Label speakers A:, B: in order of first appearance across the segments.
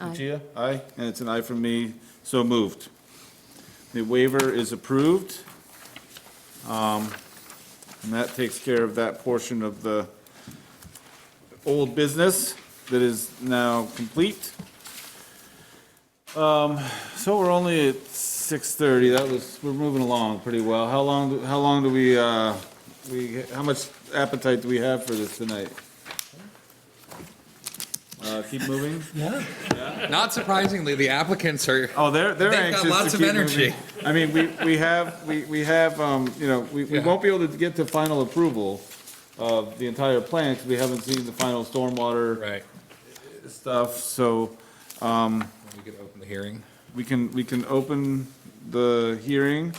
A: Lucia? Aye, and it's an aye from me, so moved. The waiver is approved. Um, And that takes care of that portion of the old business that is now complete. Um, So we're only at 6:30, that was, we're moving along pretty well. How long, how long do we, uh, we, how much appetite do we have for this tonight? Uh, Keep moving?
B: Not surprisingly, the applicants are,
A: Oh, they're, they're
B: They've got
A: anxious
B: lots
A: to
B: of
A: keep
B: energy.
A: moving. I mean, we, we have, we, we have, um, you know, we, we
B: Yeah.
A: won't be able to get to final approval of the entire plan, because we haven't seen the final stormwater
B: right,
A: stuff, so
B: we could open the hearing.
A: we can, we can open the hearing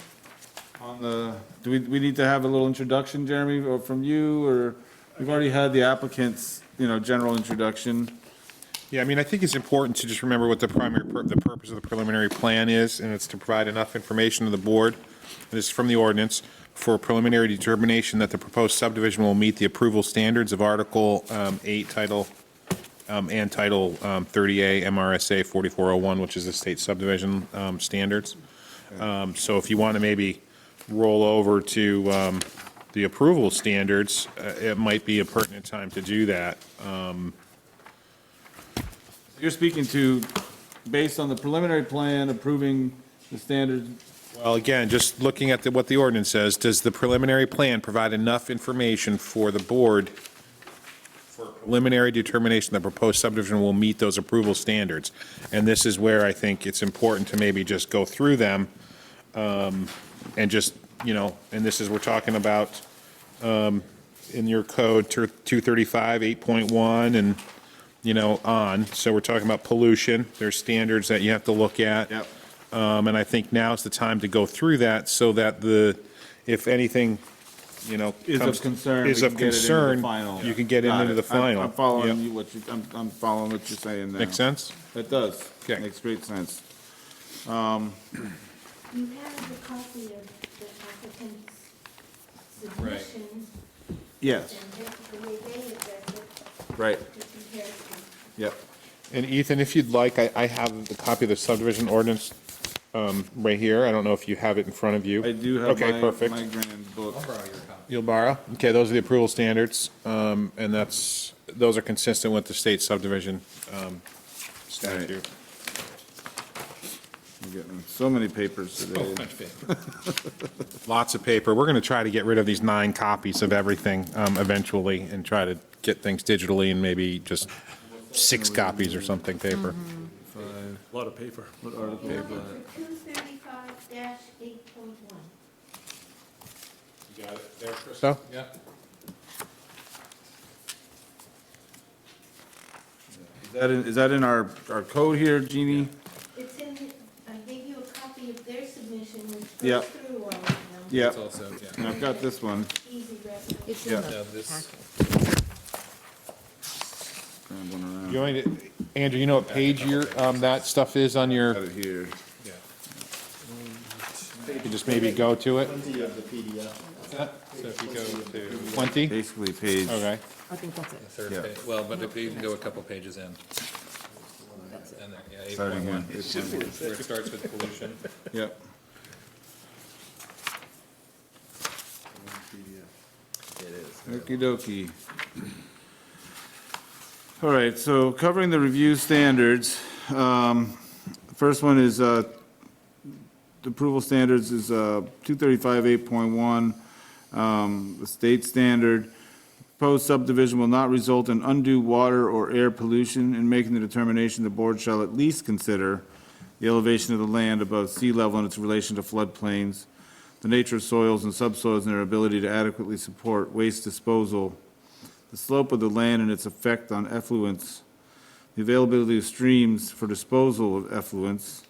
A: on the, do we, we need to have a little introduction, Jeremy, or from you, or, we've already had the applicant's, you know, general introduction.
C: Yeah, I mean, I think it's important to just remember what the primary, pur- the purpose of the preliminary plan is, and it's to provide enough information to the board, and it's from the ordinance, for preliminary determination that the proposed subdivision will meet the approval standards of Article um, 8 Title, um, and Title um, 30A MRSA 4401, which is the state subdivision um, standards. Um, So if you want to maybe roll over to um, the approval standards, uh, it might be a pertinent time to do that.
A: You're speaking to, based on the preliminary plan approving the standard
C: Well, again, just looking at the- what the ordinance says, does the preliminary plan provide enough information for the board for preliminary determination that proposed subdivision will meet those approval standards? And this is where I think it's important to maybe just go through them um, and just, you know, and this is, we're talking about um, in your code, two- 235, 8.1, and, you know, on. So we're talking about pollution, there's standards that you have to look at.
A: Yep.
C: Um, And I think now's the time to go through that so that the, if anything, you know.
A: is
C: comes-
A: of concern. we
C: Is of
A: can get it into the
C: concern,
A: final.
C: you can get
A: Got
C: into
A: it.
C: the
A: I'm-
C: final.
A: I'm following
C: Yep.
A: you, what you, I'm, I'm following what you're saying now.
C: Make sense?
A: It does.
C: Okay.
A: Makes great sense.
D: You have a copy of the applicant's
B: Right.
D: submission,
A: Yes,
D: and the way they address it
A: right,
D: to compare it to.
A: yep.
C: And Ethan, if you'd like, I, I have the copy of the subdivision ordinance um, right here. I don't know if you have it in front of you.
A: I do have
C: Okay,
A: my,
C: perfect.
A: my grand book.
C: You'll borrow? Okay, those are the approval standards, um, and that's, those are consistent with the state subdivision um, statute.
A: I'm getting so many papers today.
C: Oh. Lots of paper. We're going to try to get rid of these nine copies of everything um, eventually and try to get things digitally and maybe just six copies or something paper.
B: Mm-hmm.
E: A lot of paper.
D: Number two thirty-five eight point one.
C: So,
B: Yeah.
A: Is that in, is that in our, our code here, Jeannie?
D: It's in, I gave you a copy of their submission, which
A: Yep.
D: goes through all of them.
A: Yeah,
B: It's also, yeah.
A: and I've got this one.
D: Easy reference.
F: It's in
A: Yeah.
B: No,
F: the
B: this,
A: Grand one around.
C: you want me to- Andrew, you know what page your, um, that stuff is on your,
A: Got it here.
B: yeah.
C: you could just maybe go to it?
B: So if you go to
C: 20?
A: Basically page,
F: I
C: Okay.
F: think that's it.
B: the third
A: Yeah.
B: page, well, but if you can go a couple pages in. And there, yeah, eight
A: starting here.
B: point one, where it starts with pollution.
A: Yep. Okey dokey. All right, so covering the review standards, um, first one is, uh, the approval standards is, uh, two thirty-five, eight point one, um, the state standard. Proposed subdivision will not result in undue water or air pollution. In making the determination, the board shall at least consider the elevation of the land above sea level and its relation to floodplains, the nature of soils and subsoils and their ability to adequately support waste disposal, the slope of the land and its effect on effluents, the availability of streams for disposal of effluents.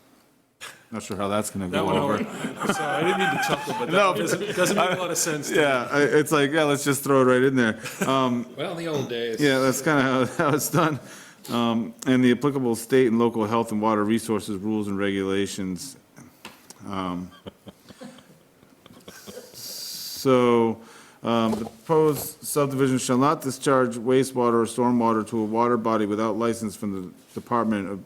A: Not sure how that's gonna
E: That
A: go
E: one
A: over.
E: over. Sorry, I didn't mean to chuckle, but
A: No.
E: that doesn't, doesn't make a lot of sense. to me.
A: Yeah, I- it's like, yeah, let's just throw it right in there.
B: Well, in the old days.
A: Yeah, that's kind of how it's done. Um, And the applicable state and local health and water resources rules and regulations. Um, So um, the proposed subdivision shall not discharge wastewater or stormwater to a water body without license from the Department of